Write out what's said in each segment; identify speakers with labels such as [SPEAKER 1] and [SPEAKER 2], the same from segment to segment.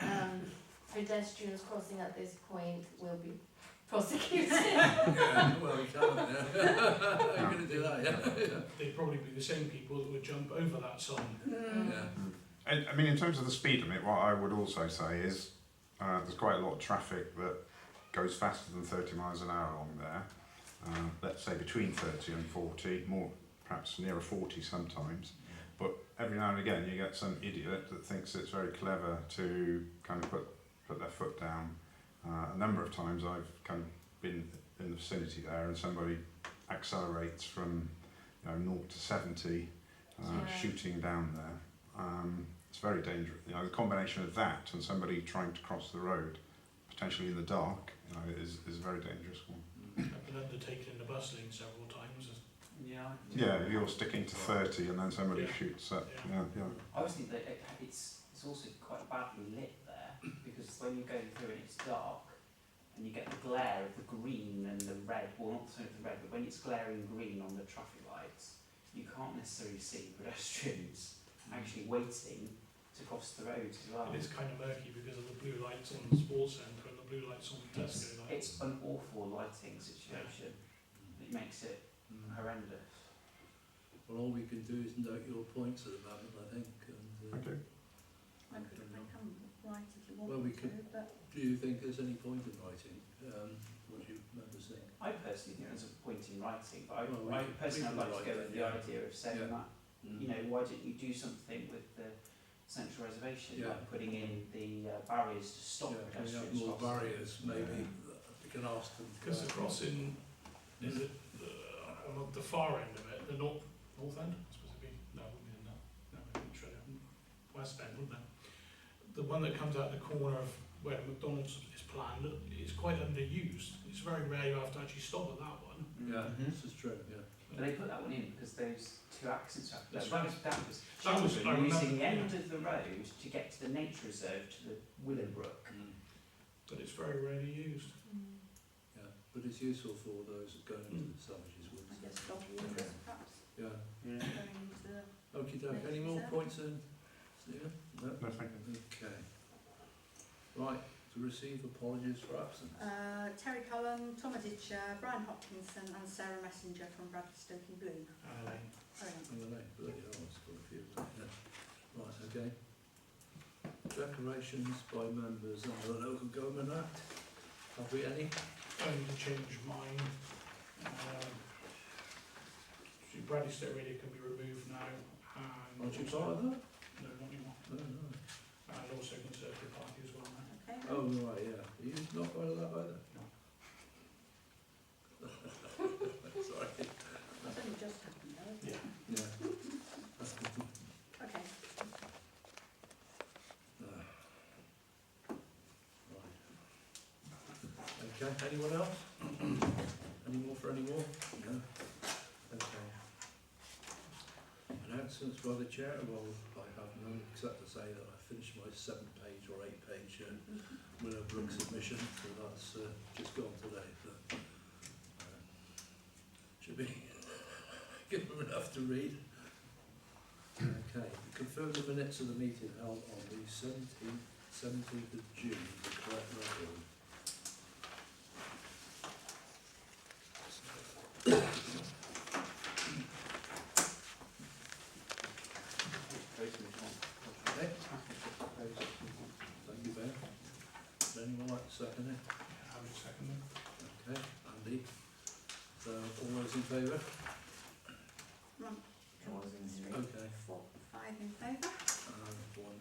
[SPEAKER 1] um, pedestrians crossing at this point will be
[SPEAKER 2] Mm.
[SPEAKER 1] prosecuted.
[SPEAKER 3] Yeah, well, you can't. Yeah. You're going to do that, yeah.
[SPEAKER 4] They'd probably be the same people that would jump over that sign.
[SPEAKER 3] yeah.
[SPEAKER 5] I, I mean, in terms of the speed limit, what I would also say is uh, there's quite a lot of traffic that goes faster than 30 miles an hour along there. Uh, let's say between 30 and 40, more perhaps nearer 40 sometimes. But every now and again, you get some idiot that thinks it's very clever to kind of put put their foot down. Uh, a number of times I've kind of been in the vicinity there, and somebody accelerates from you know, 0 to 70, uh,
[SPEAKER 1] Yeah.
[SPEAKER 5] shooting down there. Um, it's very dangerous. You know, the combination of that and somebody trying to cross the road, potentially in the dark, you know, is, is a very dangerous one.
[SPEAKER 4] I've been undertaken in the bus lane several times.
[SPEAKER 6] Yeah.
[SPEAKER 5] Yeah, if you're sticking to 30 and then somebody
[SPEAKER 4] Yeah.
[SPEAKER 5] shoots up.
[SPEAKER 4] Yeah.
[SPEAKER 5] Yeah, yeah.
[SPEAKER 6] I always think that it, it's it's also quite badly lit there because when you go through and it's dark and you get the glare of the green and the red, well not so much the red, but when it's glaring green on the traffic lights, you can't necessarily see pedestrians actually waiting to cross the road as well.
[SPEAKER 4] And it's kind of murky because of the blue lights on the sports centre and the blue lights on the
[SPEAKER 6] It's,
[SPEAKER 4] Tesco lights.
[SPEAKER 6] it's an awful lighting situation that makes it horrendous.
[SPEAKER 3] Well, all we can do is note your points at the moment, I think. And, uh,
[SPEAKER 5] Okay.
[SPEAKER 2] I could I can write if you want
[SPEAKER 3] Well,
[SPEAKER 2] me
[SPEAKER 3] we
[SPEAKER 2] to,
[SPEAKER 3] could-
[SPEAKER 2] but
[SPEAKER 3] Do you think there's any point in writing? Um, what do you members think?
[SPEAKER 6] I personally think there's a point in writing, but I,
[SPEAKER 3] Well, we
[SPEAKER 6] I
[SPEAKER 3] could- we
[SPEAKER 6] personally
[SPEAKER 3] could
[SPEAKER 6] I'd like to
[SPEAKER 3] write
[SPEAKER 6] go
[SPEAKER 3] that,
[SPEAKER 6] with the
[SPEAKER 3] yeah.
[SPEAKER 6] idea of saying
[SPEAKER 3] Yeah.
[SPEAKER 6] that Mm. you know, why didn't you do something with the central reservation,
[SPEAKER 3] Yeah.
[SPEAKER 6] like putting in the uh, barriers to stop
[SPEAKER 3] yeah, can we have
[SPEAKER 6] pedestrians?
[SPEAKER 3] more
[SPEAKER 6] crossing?
[SPEAKER 3] barriers, maybe. We can ask them.
[SPEAKER 4] Because the crossing in the, the, on the far end of it, the north, north end, I suppose it'd be, no, it wouldn't be the north, no, it would be straight up, west end, wouldn't it? The one that comes out the corner of where McDonald's is planned is quite underused. It's very rare you have to actually stop at that one.
[SPEAKER 6] Mm.
[SPEAKER 3] Yeah,
[SPEAKER 6] Mhm.
[SPEAKER 3] this is true, yeah.
[SPEAKER 6] But they put that one in because those two accidents happened.
[SPEAKER 4] That's right.
[SPEAKER 6] that, was, that was
[SPEAKER 4] That was- I
[SPEAKER 6] children
[SPEAKER 4] remember,
[SPEAKER 6] using the end
[SPEAKER 4] yeah.
[SPEAKER 6] of the road to get to the nature reserve to the Willowbrook.
[SPEAKER 3] Mm,
[SPEAKER 4] But it's very rarely used.
[SPEAKER 2] mm,
[SPEAKER 3] Yeah, but it's useful for those going into the savages
[SPEAKER 2] I
[SPEAKER 3] woods.
[SPEAKER 2] guess dog walkers perhaps
[SPEAKER 3] Yeah.
[SPEAKER 6] Mm.
[SPEAKER 2] going into the
[SPEAKER 3] Okie doke. Any more points in? Stephen? No?
[SPEAKER 5] No, thank you.
[SPEAKER 3] Okay. Right, to receive apologies for absence.
[SPEAKER 2] Uh, Terry Cullen, Tom Aditya, Brian Hopkinson and Sarah Messenger from Bradford Stoke and Bloom.
[SPEAKER 4] Uh,
[SPEAKER 2] Sorry.
[SPEAKER 3] Hang on, eh? bloody hell, it's got a few. Yeah. Right, okay. Declarations by members under the Local Government Act. Have we any?
[SPEAKER 4] only to change mine. Um, so Bradley State Radio can be removed now. And
[SPEAKER 3] Aren't you part of that?
[SPEAKER 4] No, not anymore.
[SPEAKER 3] No, no.
[SPEAKER 4] And also Conservative Party as well now.
[SPEAKER 2] Okay.
[SPEAKER 3] Oh, right, yeah. Are you not part of that either? Sorry.
[SPEAKER 2] That's only just happened though. isn't it?
[SPEAKER 3] Yeah.
[SPEAKER 2] Okay.
[SPEAKER 3] No. Right. Okay, anyone else? Any more for any more? No? Okay. Announcements by the chair, well, I have none except to say that I finished my seven page or eight page uh, Willowbrook submission, so that's uh, just gone today, so. uh, Should be good enough to read. Okay, confirm the minutes of the meeting held on the seventeenth, seventeenth of June, the correct record.
[SPEAKER 6] Those who want.
[SPEAKER 3] Okay,
[SPEAKER 6] Those who want.
[SPEAKER 3] thank you, Ben. Does anyone like to second it?
[SPEAKER 4] I would second them.
[SPEAKER 3] Okay, Andy. So, all those in favour?
[SPEAKER 2] One,
[SPEAKER 6] All those in
[SPEAKER 2] two,
[SPEAKER 6] favour.
[SPEAKER 3] Okay,
[SPEAKER 2] four, five in favour,
[SPEAKER 3] and one.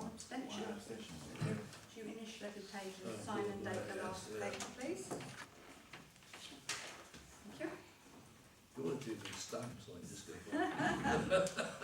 [SPEAKER 2] one abstention.
[SPEAKER 6] One abstention.
[SPEAKER 2] Do you initial every page and
[SPEAKER 3] Uh,
[SPEAKER 2] sign and date the
[SPEAKER 3] yeah,
[SPEAKER 2] last
[SPEAKER 3] yeah.
[SPEAKER 2] page, please? Thank you.
[SPEAKER 3] You ought to do these stamps like this, good one.